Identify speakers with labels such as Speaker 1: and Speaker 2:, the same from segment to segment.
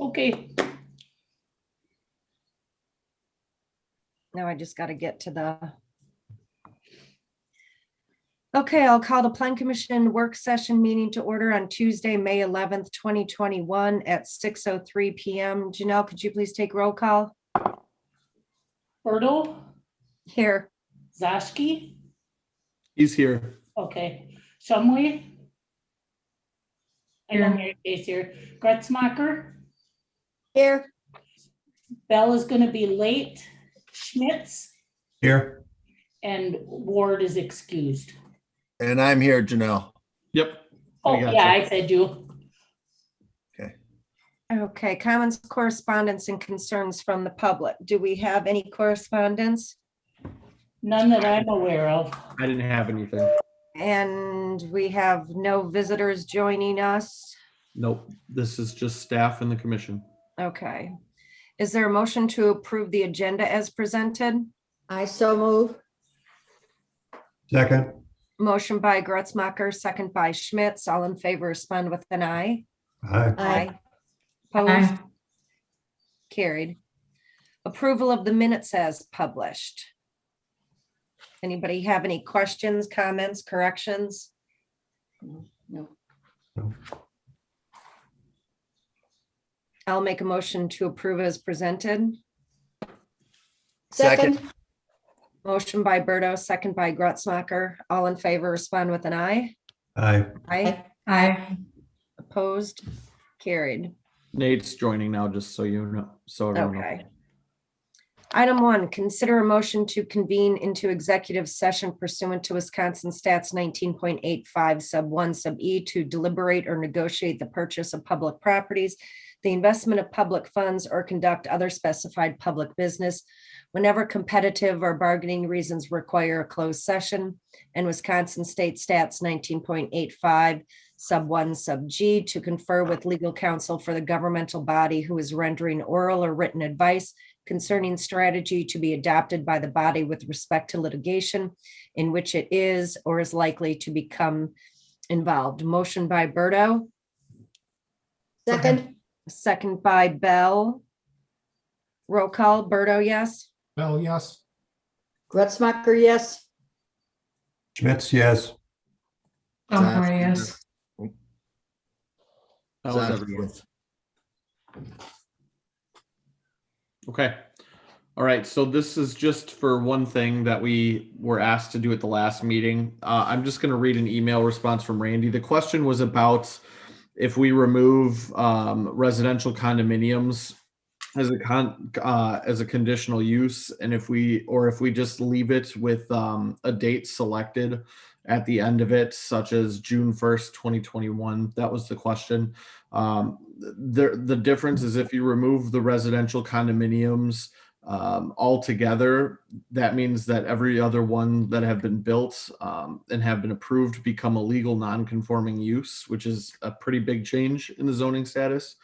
Speaker 1: Okay,
Speaker 2: Now I just got to get to the. Okay, I'll call the Plan Commission Work Session Meeting to order on Tuesday, May 11th, 2021 at 6:03 PM. Janelle, could you please take roll call?
Speaker 1: Bertle,
Speaker 2: Here,
Speaker 1: Zaski,
Speaker 3: He's here.
Speaker 1: okay, Shumway. I know Mary Kay's here. Gretzmacher,
Speaker 2: here,
Speaker 1: Bell is gonna be late, Schmitz,
Speaker 4: Here.
Speaker 1: and Ward is excused.
Speaker 4: And I'm here, Janelle.
Speaker 3: Yep.
Speaker 1: Oh,
Speaker 3: I got
Speaker 1: yeah,
Speaker 3: you.
Speaker 1: I said you.
Speaker 2: okay, comments, correspondence, and concerns from the public. Do we have any correspondence?
Speaker 1: None that I'm aware of.
Speaker 3: I didn't have anything.
Speaker 2: And we have no visitors joining us.
Speaker 3: Nope. This is just staff and the commission.
Speaker 2: Okay. Is there a motion to approve the agenda as presented?
Speaker 5: I so move.
Speaker 4: Second.
Speaker 2: Motion by Gretzmacher, second by Schmitz. All in favor, respond with an aye.
Speaker 4: Aye.
Speaker 5: Aye.
Speaker 2: Opposed? Carried. Approval of the minutes as published. Anybody have any questions, comments, corrections? No.
Speaker 4: No.
Speaker 2: I'll make a motion to approve as presented.
Speaker 4: Second.
Speaker 5: Second.
Speaker 2: Motion by Berto, second by Gretzmacher. All in favor, respond with an aye.
Speaker 4: Aye.
Speaker 2: Aye.
Speaker 5: Aye.
Speaker 2: Opposed? Carried.
Speaker 3: Nate's joining now, just so you know, so everyone knows.
Speaker 2: Okay. Item one, consider a motion to convene into executive session pursuant to Wisconsin Stats nineteen point eight five sub one sub E to deliberate or negotiate the purchase of public properties, the investment of public funds, or conduct other specified public business whenever competitive or bargaining reasons require a closed session, and Wisconsin State Stats nineteen point eight five sub one, sub G, to confer with legal counsel for the governmental body who is rendering oral or written advice concerning strategy to be adopted by the body with respect to litigation in which it is or is likely to become involved. Motion by Berto,
Speaker 5: Second.
Speaker 2: second by Bell. Roll call, Berto, yes?
Speaker 6: Bell, yes.
Speaker 5: Gretzmacher, yes.
Speaker 4: Schmitz, yes.
Speaker 7: Dunbar, yes.
Speaker 3: That was everyone. Okay. All right. So this is just for one thing that we were asked to do at the last meeting. Uh, I'm just going to read an email response from Randy. The question was about if we remove um, residential condominiums as a con uh, as a conditional use, and if we or if we just leave it with um, a date selected at the end of it, such as June 1st, 2021. That was the question. Um, th- the, the difference is if you remove the residential condominiums um, altogether, that means that every other one that have been built um, and have been approved become a legal non-conforming use, which is a pretty big change in the zoning status.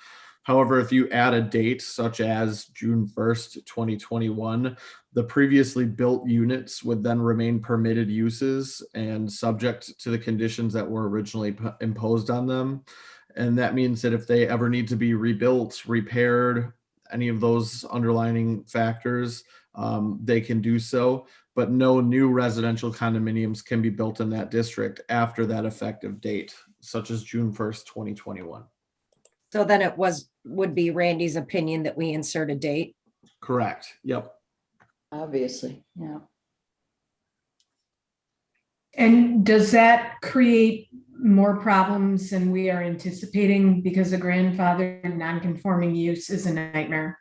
Speaker 3: However, if you add a date such as June 1st, 2021, the previously built units would then remain permitted uses and subject to the conditions that were originally p- imposed on them. And that means that if they ever need to be rebuilt, repaired, any of those underlining factors, um, they can do so. But no new residential condominiums can be built in that district after that effective date, such as June 1st, 2021.
Speaker 2: So then it was, would be Randy's opinion that we insert a date.
Speaker 3: Correct. Yep.
Speaker 5: Obviously, yeah.
Speaker 7: And does that create more problems than we are anticipating because the grandfather non-conforming use is a nightmare?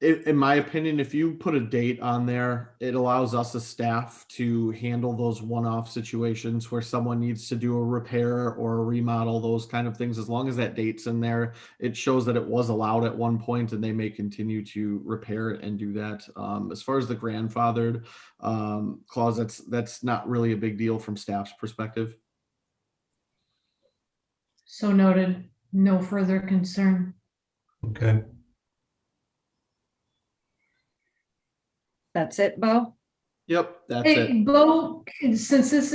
Speaker 3: in, in my opinion, if you put a date on there, it allows us as staff to handle those one-off situations where someone needs to do a repair or a remodel, those kind of things. As long as that date's in there, it shows that it was allowed at one point and they may continue to repair it and do that. Um, as far as the grandfathered um, clause, that's that's not really a big deal from staff's perspective.
Speaker 7: So noted, no further concern.
Speaker 4: Okay.
Speaker 2: That's it, Bo?
Speaker 3: Yep, that's it.
Speaker 7: Hey, Bo, since this